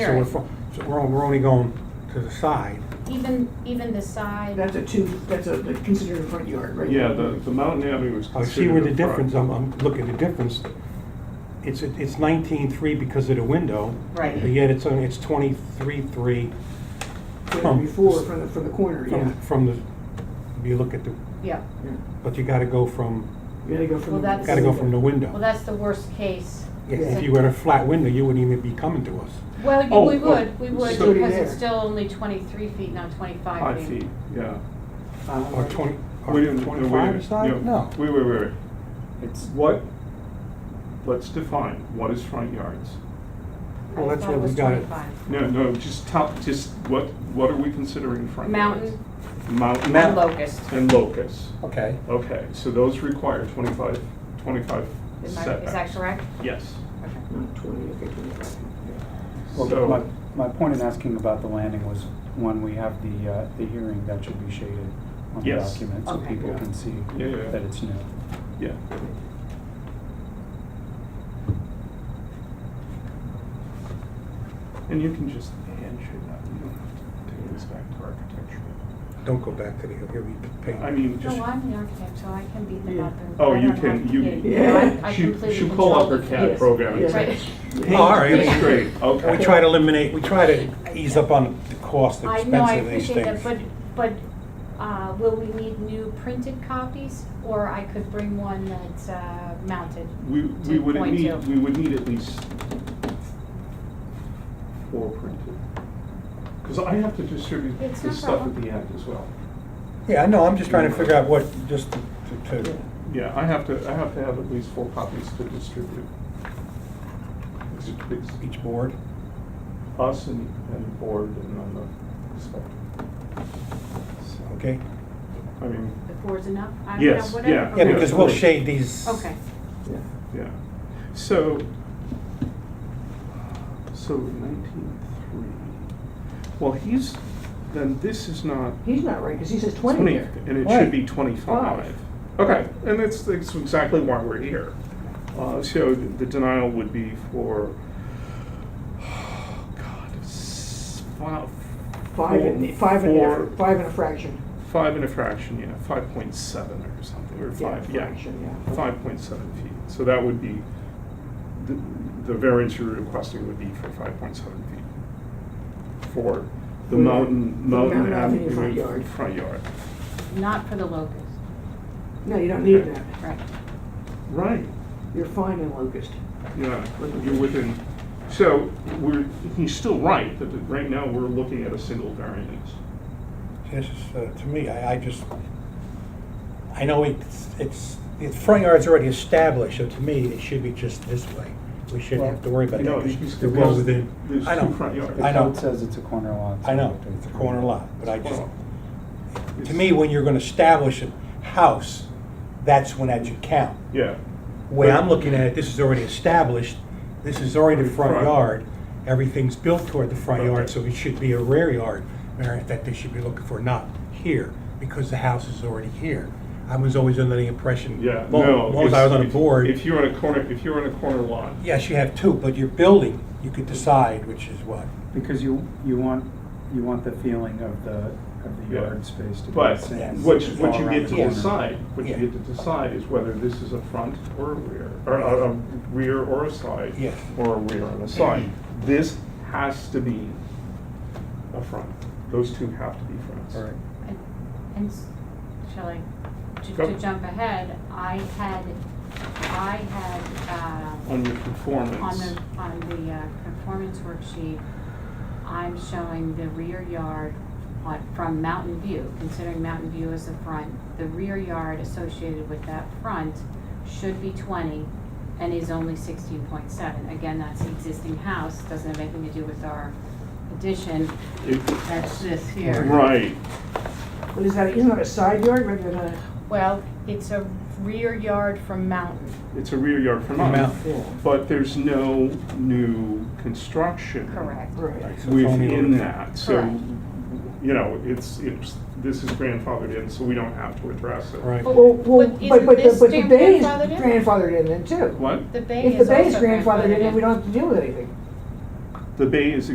So we're, fo- so we're on- we're only going to the side. Even, even the side, That's a two, that's a, that's considered a front yard, right? Yeah, the, the Mountain Avenue is I Oh, see where considered the a front. difference, I'm, I'm looking at the difference. It's, it's nineteen-three because of the window, but Right, yet it's, only- it's twenty-three-three Yeah, Before, from the, from the corner, yeah. from, from the, if you look at the, yeah, Yeah. but you gotta go from, You gotta go from. Well, the- that's- gotta go from the well, window. that's the worst case. Yeah, If you were a flat window, you wouldn't even be coming to us. Well, you- Oh, we oh, would, we would, so- because it's there. still only twenty-three feet, not twenty-five Five feet. feet, yeah. Uh, Or twenty, We or didn't- no, wait a twenty-five minute, side? No. Wait, wait, wait, wait. It's what, let's define, what is front yards? Well, I that's thought what it we was got it. 25. No, no, just top, just what, what are we considering front yards? Mountain Mountain. and locust. And locus. Okay. Okay, so those require 25, 25 Is my- setback. is that correct? Yes. Okay. not Twenty, okay, twenty-five. Well, So- my, my point in asking about the landing was, when we have the, uh, the hearing, that should be shaded on the Yes. document, so Okay. people can see Yeah, yeah, yeah. that it's new. Yeah. And you can just hand shit out, you don't have to take this back to architecture. Don't go back to the, here we paint. I mean, just, No, I'm the architect, so I can beat them Yeah. up. and- Oh, I you don't can- have to- you- yeah, I- I she, completely she pull control up her the- CAD Yes. program. Yes. Right. Oh, all right. It's great, We okay. try to eliminate, we try to ease up on the cost, the I know, expense I of these appreciate that, things. but, but, uh, will we need new printed copies? Or I could bring one that's, uh, mounted? We, we would 2.2. need, we would need at least four printed. Because I have to distribute It's the no stuff at problem. the end as well. Yeah, I know, I'm just trying to figure out what, just to, to, Yeah, I have to, I have to have at least four copies to distribute. It's- it's each board. Us and, and board and on the spec. Okay, I mean, The four's enough? I mean, Yes, whatever. yeah. yeah, Okay. because we'll shade these. Okay. Yeah. yeah. So, so nineteen three. Well, he's, then this is not He's not right, cause he says twenty twenty, there. and it Right. should be twenty-five. Five. Okay, and that's, that's exactly why we're here. Uh, so the denial would be for, God, s- fi- Five and, five and, four- a- five and a fraction. Five and a fraction, yeah, five point seven or something, or five, yeah, Fraction, yeah. five point seven feet. So that would be, the, the variance you're requesting would be for five point seven feet. For the For the- for mountain, the mountain Mountain Avenue avenue. front yard. Front yard, Not for the locust, No, you don't need that. right. right, You're fine in Locust. yeah, you're within, so we're, he's still right, that right now we're looking at a single variance. This is, uh, to me, I, I just, I know it's, it's, the front yard's already established, so to me, it should be just this way. We shouldn't have to worry about You it. know, because there's- they're well there's- within, there's I two know, front yards. I The know, code says it's a corner lot. so I know, we have to- it's a corner lot, but I just, to It's- me, when you're gonna establish a house, that's when that should count. Yeah, The way I'm looking at it, this is already established, this is already the front Front. yard, everything's built toward the front yard, Okay. so it should be a rear yard variance that they should be looking for, not here, because the house is already here. I was always under the impression, yeah, long no. long as it's- I was on a if- board, If you're on a corner, if you're on a corner lot, yes, you have two, but your building, you could decide which is what. Because you, you want, you want the feeling of the, of the Yeah. yard space to be But the same. as what, all what you around get the to Yeah. corner. decide, what you Yeah. get to decide is whether this is a front or a rear, or a, a rear or a side. Yes. Or a rear and a side. This has to be a front. Those two have to be fronts. All right. And- And s- shall I, to, Go. to jump ahead, I had, I had, uh, On your on conformance. the, on the uh, conformance worksheet, I'm showing the rear yard on, from Mountain View, considering Mountain View as the front. The rear yard associated with that front should be twenty and is only sixteen point seven. Again, that's the existing house, doesn't have anything to do with our addition, It- that's this here. Right, But is that, isn't that a side yard rather than a? Well, it's a rear yard from Mountain, it's a rear yard from From us, out. Yeah. but there's no new construction. correct? Right. So it's only within over- that, so, Correct. you know, it's, it's, this is grandfathered in, so we don't have to address it. Right. But- Well, well, but but, but, the- isn't but the this bay is grandfathered in? grandfathered in then too. What? The bay If the is also grandfathered bay is grandfathered in, then we don't have to deal with anything. The bay is